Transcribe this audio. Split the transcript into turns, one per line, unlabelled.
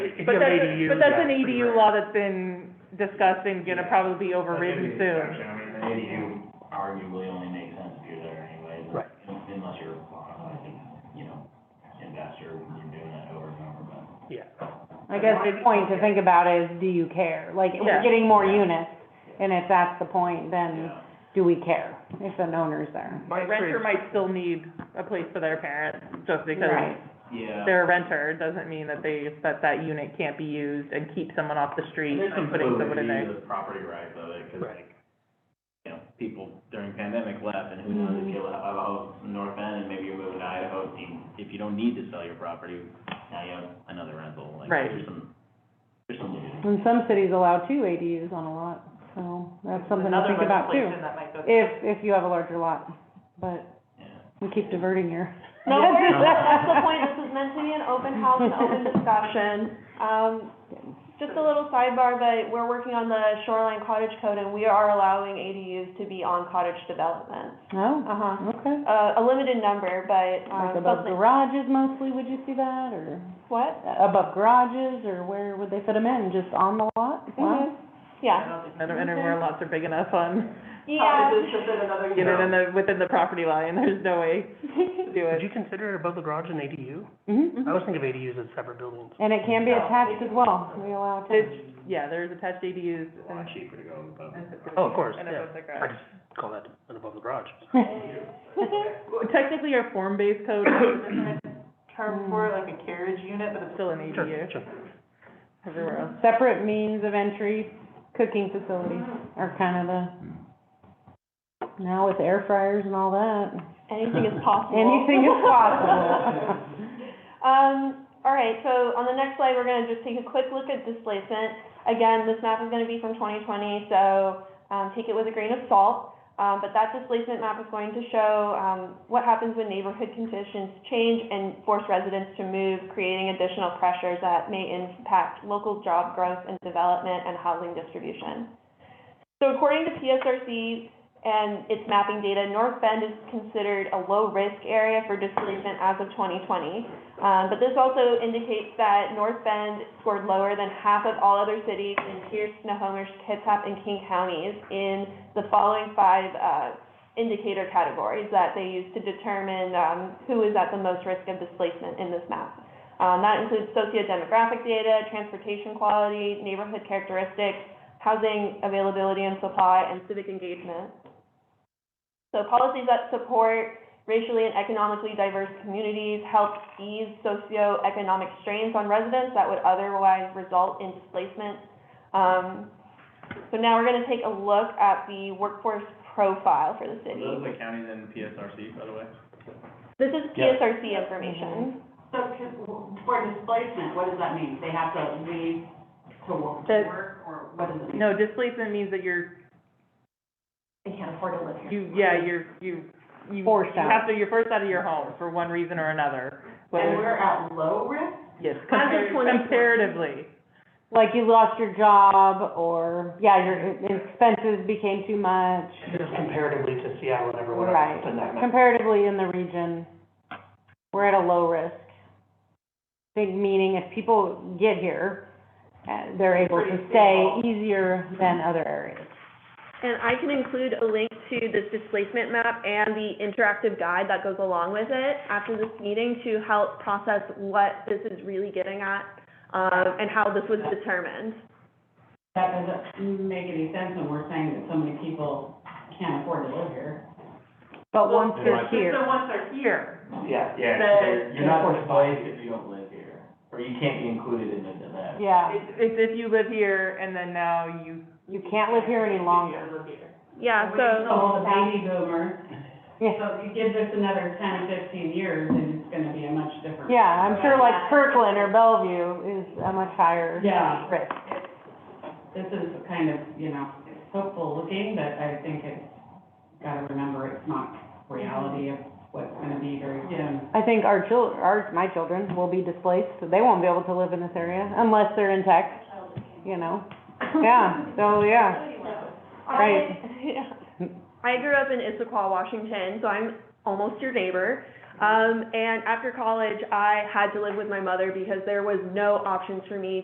It's
But
an
that's,
ADU,
but that's
yeah,
an
it's pretty
EDU
rare.
law that's been discussed and gonna
Yeah.
probably be
That could
overridden
be an
soon.
exception. I mean, an ADU arguably only makes sense if you're there anyway.
Right.
Unless you're, uh, you know, investor, you're doing that over and over, but.
Yeah.
I guess the point to think about is, do you care? Like, if we're
Yeah.
getting more units, and if that's the point, then
Yeah.
do we care if an owner's there?
My
A renter
experience,
might still need a place for their parents, just because
Right,
Yeah.
they're a renter, doesn't mean that they, that that unit can't be used and keep someone off the street
There's
and
some
putting someone in
validity
there.
to the property rights of it, because
Right.
like, you know, people during pandemic left, and who knows if you'll have a house in North End, and maybe you're moving to Idaho, and you- if you don't need to sell your property, now you have another rental, like,
Right.
there's some, there's some. validity.
and some cities allow two ADUs on a lot, so that's something to think about too. If, if you have a larger lot, but
Yeah.
we keep diverting here.
No, worries. that's the point, this is meant to be an open house and open discussion. Um, just a little sidebar, but we're working on the shoreline cottage code, and we are allowing ADUs to be on cottage developments.
Oh,
Uh-huh,
okay.
uh, a limited number, but,
Like
um,
above
something,
garages mostly, would you see that, or
what?
above garages, or where would they fit them in, just on the lot? Wow.
Mhm. Yeah,
I don't know where lots are big enough on,
yeah,
get it in the, within the property line, there's no way to do
would
it.
you consider it above the garage an ADU?
Mhm.
I always think of ADUs as separate buildings.
And it can be attached as well, we allow attached.
It's, yeah, there's attached ADUs
It's a
and.
lot cheaper to go above.
Oh, of course,
and
yeah.
above the
I
garage.
just call that an above the garage.
Well, Technically, our form-based code is
term for it,
like a carriage unit, but it's still an
Sure,
ADU
sure.
everywhere else.
Separate means of entry, cooking facilities are kind of the, now with air fryers and all that,
anything is possible.
anything is possible.
Um, all right, so on the next slide, we're gonna just take a quick look at displacement. Again, this map is gonna be from twenty twenty, so, um, take it with a grain of salt. Um, but that displacement map is going to show, um, what happens when neighborhood conditions change and force residents to move, creating additional pressures that may impact local job growth and development and housing distribution. So according to PSRC, and its mapping data, North Bend is considered a low-risk area for displacement as of 2020. Um, but this also indicates that North Bend scored lower than half of all other cities in Pierce, Snohomish, Kitsap, and King counties in the following five uh, indicator categories that they use to determine um, who is at the most risk of displacement in this map. Um, that includes socio-demographic data, transportation quality, neighborhood characteristics, housing availability and supply, and civic engagement. So policies that support racially and economically diverse communities help ease socioeconomic strains on residents that would otherwise result in displacement. Um, so now we're gonna take a look at the workforce profile for the
Are
city.
those the counties in PSRC, by the way?
This is PSRC information.
So can- for displacement, what does that mean? They have to leave to wo- to
The-
work, or what does it mean?
No, displacement means that you're,
They can't afford to live here.
you, yeah, you're, you, you.
Forced
You
out.
have to, you're forced out of your home for one reason or another,
And
whether,
we're at low risk?
yes, compar-
As of 2020.
comparatively.
Like you lost your job, or, yeah, your expenses became too much,
Just comparatively to Seattle and everyone
right?
else in that map.
Comparatively in the region, we're at a low risk. Big meaning if people get here, uh, they're able to
Pretty
stay
small.
easier than other areas.
And I can include a link to this displacement map and the interactive guide that goes along with it after this meeting to help process what this is really getting at, um, and how this was determined.
That doesn't make any sense when we're saying that so many people can't afford to live here.
But once they're
Right.
here,
So once they're here,
Yeah, yeah,
The-
so you're not
the-
displaced if you don't live here, or you can't be included in the, in that.
yeah,
It's, it's if you live here and then now you,
you can't live here any longer.
Yeah,
we
so.
sold the baby boomer.
Yeah.
So if you give this another 10, 15 years, then it's gonna be a much different.
Yeah, I'm sure like Kirkland or Bellevue is a much higher
Yeah.
risk.
This is kind of, you know, it's hopeful looking, but I think it's, gotta remember, it's not reality of what's gonna be very soon.
I think our chil- our, my children will be displaced, so they won't be able to live in this area unless they're in tech, you know? Yeah, so, yeah. Right.
I, I grew up in Issaquah, Washington, so I'm almost your neighbor. Um, and after college, I had to live with my mother because there was no options for me